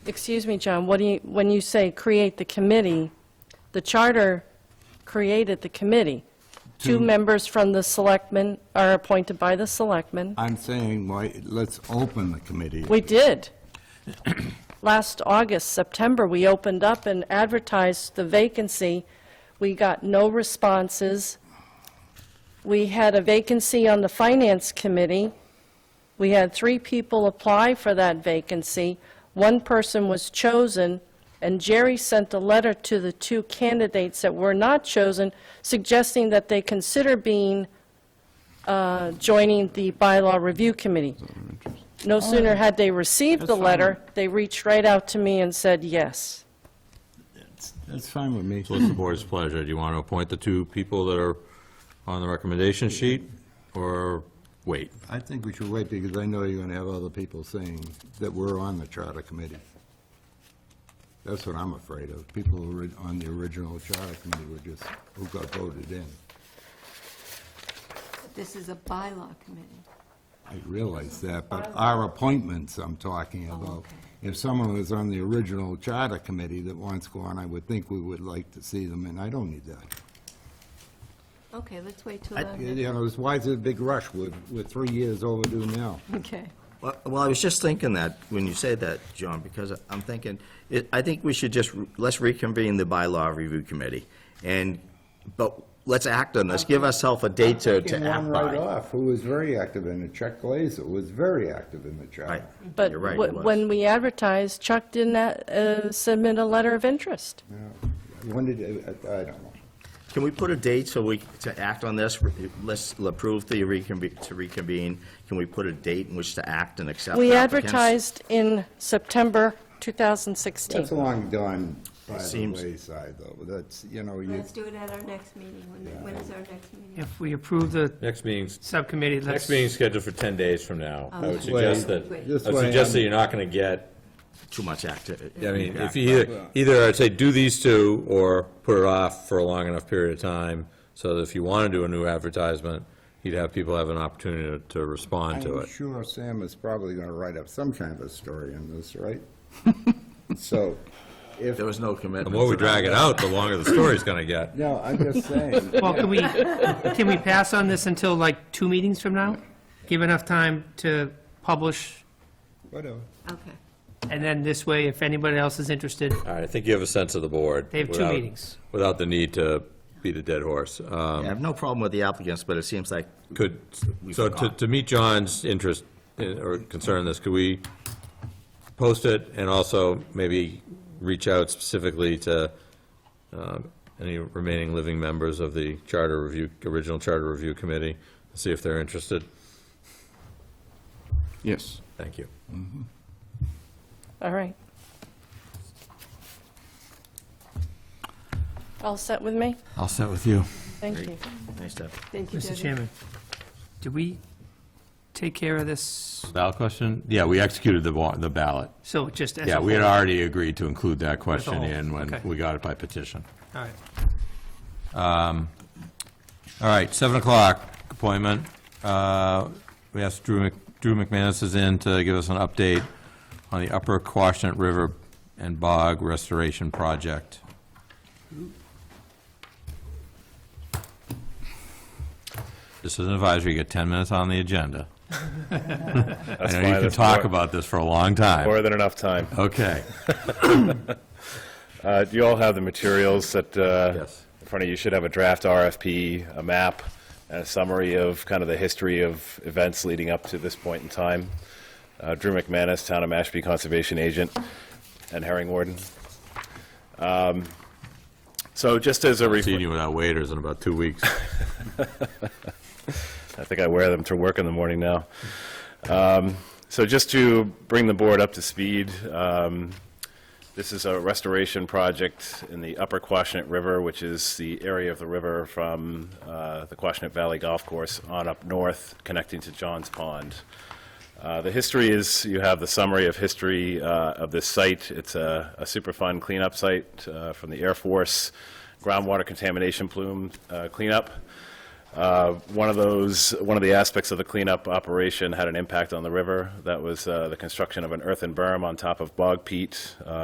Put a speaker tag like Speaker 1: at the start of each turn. Speaker 1: Excuse me, John, what do you, when you say create the committee, the charter created the committee. Two
Speaker 2: Two.
Speaker 1: members from the selectmen are appointed by the selectmen.
Speaker 2: I'm saying, why, let's open the committee.
Speaker 1: We did. Last August, September, we opened up and advertised the vacancy. We got no responses. We had a vacancy on the Finance Committee. We had three people apply for that vacancy. One person was chosen, and Jerry sent a letter to the two candidates that were not chosen, suggesting that they consider being, uh, joining the Bylaw Review Committee. No sooner had they received the
Speaker 2: Oh. That's fine.
Speaker 1: letter, they reached right out to me and said yes.
Speaker 2: That's fine with me.
Speaker 3: So What's the board's pleasure? Do you want to appoint the two people that are on the recommendation sheet, or wait?
Speaker 2: I think we should wait, because I know you're gonna have other people saying that we're on the charter committee. That's what I'm afraid of. People who were on the original charter committee were just, who got voted in.
Speaker 4: This is a bylaw committee.
Speaker 2: I realize that, but our appointments I'm talking about.
Speaker 4: okay.
Speaker 2: If someone was on the original charter committee that wants to go on, I would think we would like to see them, and I don't need that.
Speaker 4: Okay, let's wait till,
Speaker 2: I-
Speaker 4: our next-
Speaker 2: You know, it's- why is it a big rush? We're, we're three years overdue now.
Speaker 4: okay.
Speaker 5: Well, well, I was just thinking that, when you said that, John, because I'm thinking, it- I think we should just, re- let's reconvene the bylaw review committee, and, but let's act on this, give ourselves a date to,
Speaker 2: Taking
Speaker 5: to act
Speaker 2: one right
Speaker 5: by.
Speaker 2: off, who was very active in it, Chuck Glazer was very active in the
Speaker 5: Right.
Speaker 2: charter.
Speaker 1: But
Speaker 5: You're right,
Speaker 1: wh-
Speaker 5: it was.
Speaker 1: when we advertised, Chuck didn't uh, submit a letter of interest.
Speaker 2: When did, I I don't know.
Speaker 5: Can we put a date so we, to act on this, let's approve the reconvene, to reconvene, can we put a date in which to act and accept
Speaker 1: We
Speaker 5: applicants?
Speaker 1: advertised in September
Speaker 2: That's
Speaker 1: 2016.
Speaker 2: long done by the
Speaker 5: Seems-
Speaker 2: wayside, though, that's, you know, you,
Speaker 4: Let's do it at our next meeting. When, when is our next meeting?
Speaker 6: If we approve the
Speaker 3: Next meeting's,
Speaker 6: subcommittee,
Speaker 3: next
Speaker 6: let's,
Speaker 3: meeting's scheduled for 10 days from now. I would
Speaker 4: Okay.
Speaker 3: suggest
Speaker 2: Um, Wait.
Speaker 3: that,
Speaker 2: This
Speaker 3: I would
Speaker 2: way
Speaker 3: suggest that
Speaker 2: I'm-
Speaker 3: you're not going to get,
Speaker 5: Too much uh, activity.
Speaker 3: I mean, if you either, either I'd say do these two, or put it off for a long enough period of time, so that if you want to do a new advertisement, you'd have people have an opportunity to- to respond to
Speaker 2: I'm
Speaker 3: it.
Speaker 2: sure Sam is probably gonna write up some kind of a story on this, right? So, if,
Speaker 5: There was no commitment.
Speaker 3: The more we
Speaker 5: to that.
Speaker 3: drag it out, the longer the story's going to get.
Speaker 2: no, I'm just saying,
Speaker 6: well, can we, can we pass on this until like two meetings from now? Give enough time to publish,
Speaker 2: whatever.
Speaker 4: Okay.
Speaker 6: and then this way, if anybody else is interested,
Speaker 3: All right, I think you have a sense of the board.
Speaker 6: They have two
Speaker 3: without-
Speaker 6: meetings.
Speaker 3: Without the need to beat a dead horse. Um,
Speaker 5: I have no problem with the applicants, but it seems like,
Speaker 3: Could,
Speaker 5: We
Speaker 3: so to,
Speaker 5: forgot.
Speaker 3: to meet John's interest uh, or concern in this, could we post it and also maybe reach out specifically to um, any remaining living members of the charter review, original charter review committee, see if they're interested?
Speaker 7: Yes.
Speaker 3: Thank you.
Speaker 1: All right. All set with me?
Speaker 7: I'll set with you.
Speaker 1: Thank you.
Speaker 5: nice to,
Speaker 4: Thank you,
Speaker 6: Mr.
Speaker 4: Debbie.
Speaker 6: Chairman, do we take care of this?
Speaker 3: Ballot question? Yeah, we executed the, wa- the ballot.
Speaker 6: So just as a
Speaker 7: Yeah, we had
Speaker 6: whole?
Speaker 7: already agreed to include that question
Speaker 6: whole,
Speaker 7: in when
Speaker 6: okay.
Speaker 7: we got it by petition.
Speaker 6: All right.
Speaker 3: All right, 7 o'clock appointment. Uh, We asked Drew Mc- Drew McManus is in to give us an update on the Upper Quashnet River and Bog Restoration Project. This is an advisory, you get 10 minutes on the agenda. I know
Speaker 8: fine,
Speaker 3: you can
Speaker 8: that's
Speaker 3: talk
Speaker 8: more-
Speaker 3: about this for a long time.
Speaker 8: More than enough time.
Speaker 3: Okay.
Speaker 8: Uh, You all have the materials that, uh,
Speaker 3: Yes.
Speaker 8: in front of you, You should have a draft RFP, a map, and a summary of kind of the history of events leading up to this point in time. Uh, Drew McManus, Town of Mashpee Conservation Agent, and Herring Warden. Um, So just as a
Speaker 3: Seen
Speaker 8: review,
Speaker 3: you without waiters in about two weeks.
Speaker 8: I think I wear them to work in the morning now. Um, So just to bring the board up to speed, um, This is a restoration project in the upper Quashnet River, which is the area of the river from uh, the Quashnet Valley Golf Course on up north, connecting to Johns Pond. Uh, The history is, you have the summary of history uh, of this site. It's a a Superfund cleanup site uh, from the Air Force groundwater contamination plume uh, cleanup. Uh, One of those, one of the aspects of the cleanup operation had an impact on the river. That was uh, the construction of an earthen berm on top of bog peat uh,